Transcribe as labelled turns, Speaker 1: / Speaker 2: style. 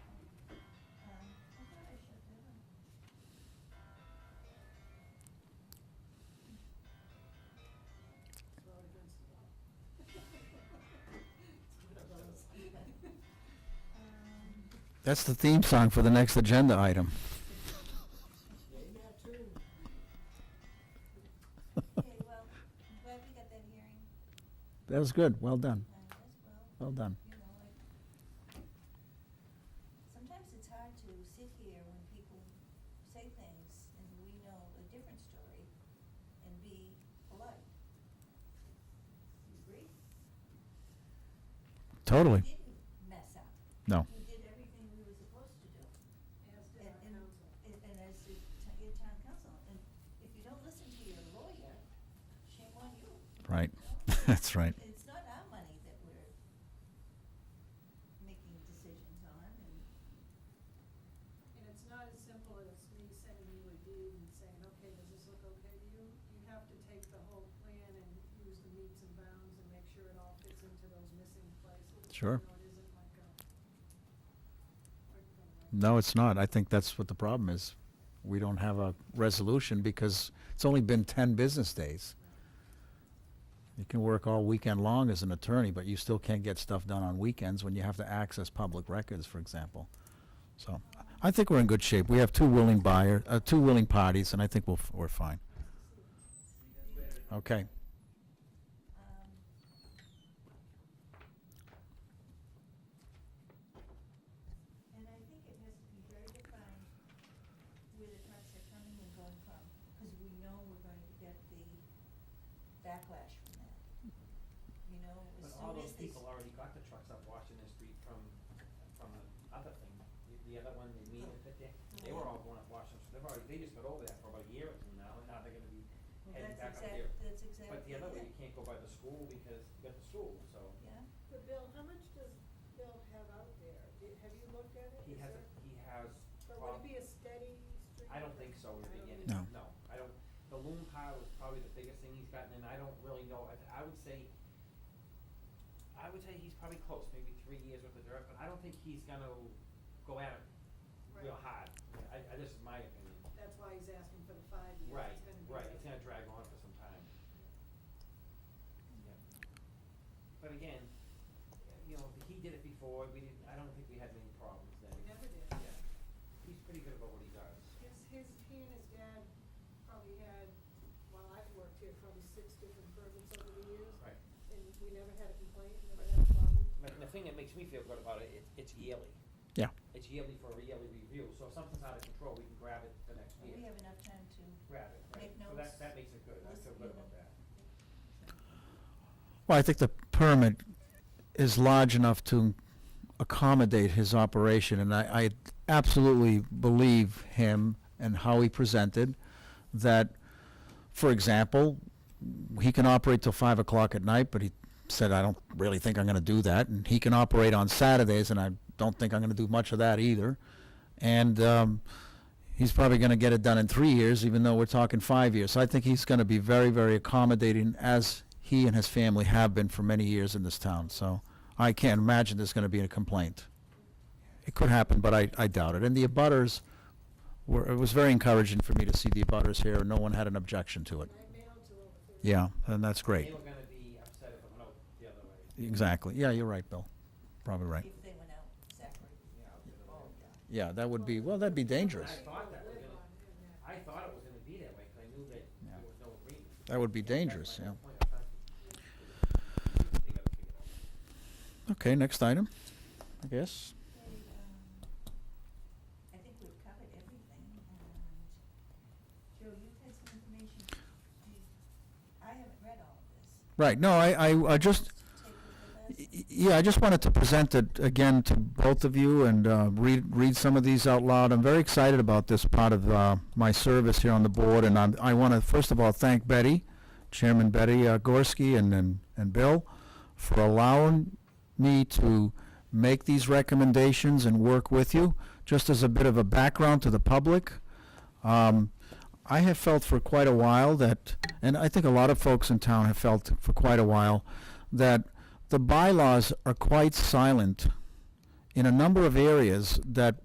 Speaker 1: That's the theme song for the next agenda item.
Speaker 2: Okay, well, I'm glad we got that hearing,
Speaker 1: That was good. Well done.
Speaker 2: uh, as
Speaker 1: Well
Speaker 2: well,
Speaker 1: done.
Speaker 2: you know, like, sometimes it's hard to sit here when people say things and we know a different story and be polite. You agree?
Speaker 1: Totally.
Speaker 2: You didn't mess up.
Speaker 1: No.
Speaker 2: You did everything we were supposed to do. And, and, and and as the t- your town council, and if you don't listen to your lawyer, shame on you.
Speaker 1: Right. That's right.
Speaker 2: It's not our money that we're making decisions on, and,
Speaker 3: And it's not as simple as me sending you a deed and saying, okay, does this look okay to you? You have to take the whole plan and use the meets and bounds and make sure it all fits into those missing places.
Speaker 1: Sure.
Speaker 3: You know, it isn't like a quick thing like
Speaker 1: No, it's not. I think that's what the problem is. We don't have a resolution because it's only been 10 business days. You can work all weekend long as an attorney, but you still can't get stuff done on weekends when you have to access public records, for example. So I think we're in good shape. We have two willing buyer, uh, two willing parties, and I think we'll, f- we're fine. Okay.
Speaker 2: um, and I think it has to be very defined where the trucks are coming and going from, because we know we're going to get the backlash from that. You know, as
Speaker 4: But all
Speaker 2: soon as
Speaker 4: those
Speaker 2: they.
Speaker 4: people already got the trucks up Washington Street from, from the other thing, the, the other one, the meeting
Speaker 3: Oh.
Speaker 4: that they, they were all going up Washington, Street. they've already, they just got over that for about a year or two now, and now they're gonna be
Speaker 2: Well,
Speaker 4: heading back
Speaker 2: that's
Speaker 4: up
Speaker 2: exact-
Speaker 4: here.
Speaker 2: That's exactly
Speaker 4: But the other way,
Speaker 2: it.
Speaker 4: you can't go by the school because you got the school, so
Speaker 2: Yeah,
Speaker 3: But Bill, how much does Bill have out there? Did, have you looked at it?
Speaker 4: he
Speaker 3: Is
Speaker 4: has, a-
Speaker 3: there-
Speaker 4: he has,
Speaker 3: But would it
Speaker 4: prob-
Speaker 3: be a steady stream?
Speaker 4: I don't think so
Speaker 3: I
Speaker 4: in the
Speaker 3: don't
Speaker 4: beginning,
Speaker 3: think
Speaker 1: No.
Speaker 4: no, I don't, the loom pile is probably the biggest thing he's gotten, and I don't really know, I, th- I would say, I would say he's probably close, maybe three years with the dirt, but I don't think he's gonna go at it
Speaker 3: Right.
Speaker 4: real hard. I, I, this is my opinion.
Speaker 3: That's why he's asking for the five years.
Speaker 4: Right,
Speaker 3: It's gonna be
Speaker 4: right,
Speaker 3: a-
Speaker 4: it's gonna drag on for some time. Yeah. But again, you know, he did it before, we didn't, I don't think we had many problems then.
Speaker 3: We never did.
Speaker 4: Yeah, he's pretty good about what he does.
Speaker 3: His, his, he and his dad probably had, while I've worked here, probably six different permits over the years.
Speaker 4: Right.
Speaker 3: And we never had a complaint, never had a problem.
Speaker 4: Like, the thing that makes me feel good about it, it, it's yearly,
Speaker 1: Yeah.
Speaker 4: it's yearly for a yearly review, so if something's out of control, we can grab it the next
Speaker 2: but
Speaker 4: year.
Speaker 2: we have enough time to,
Speaker 4: Grab it, right,
Speaker 2: make
Speaker 4: so that,
Speaker 2: notes,
Speaker 4: that makes it good, I
Speaker 2: listen,
Speaker 4: feel
Speaker 2: you
Speaker 4: good about
Speaker 2: know.
Speaker 4: that.
Speaker 1: Well, I think the permit is large enough to accommodate his operation, and I, I absolutely believe him and how he presented that, for example, he can operate till five o'clock at night, but he said, I don't really think I'm gonna do that, and he can operate on Saturdays, and I don't think I'm gonna do much of that either. And, um, he's probably gonna get it done in three years, even though we're talking five years. So I think he's gonna be very, very accommodating, as he and his family have been for many years in this town, so I can't imagine there's gonna be a complaint. It could happen, but I, I doubt it. And the abutters were, it was very encouraging for me to see the abutters here, no one had an objection to it.
Speaker 3: And I mailed to over thirty.
Speaker 1: Yeah, and that's great.
Speaker 4: They were gonna be upset if it went out the other way.
Speaker 1: Exactly. Yeah, you're right, Bill. Probably right.
Speaker 2: if they went out, Zachary.
Speaker 4: Yeah, out the other
Speaker 2: Oh,
Speaker 4: way.
Speaker 2: yeah.
Speaker 1: Yeah, that would be, well, that'd be dangerous.
Speaker 4: I thought that was
Speaker 3: Live
Speaker 4: gonna-
Speaker 3: on in that.
Speaker 4: I thought it was gonna be that way, 'cause I knew that
Speaker 1: Yeah.
Speaker 4: there was no agreement.
Speaker 1: That would be
Speaker 4: That's my
Speaker 1: dangerous,
Speaker 4: whole
Speaker 1: yeah.
Speaker 4: point. I thought they gotta figure it out.
Speaker 1: Okay, next item, I guess.
Speaker 2: Okay, um, I think we've covered everything, and Joe, you had some information, You- I haven't read all of this,
Speaker 1: Right, no, I, I, I just,
Speaker 2: take it with
Speaker 1: Y-
Speaker 2: us.
Speaker 1: y- Yeah, I just wanted to present it again to both of you and uh, read, read some of these out loud. I'm very excited about this part of uh, my service here on the board, and I'm, I want to, first of all, thank Betty, Chairman Betty uh, Gorski and, and, and Bill, for allowing me to make these recommendations and work with you. Just as a bit of a background to the public, um, I have felt for quite a while that, and I think a lot of folks in town have felt for quite a while, that the bylaws are quite silent in a number of areas that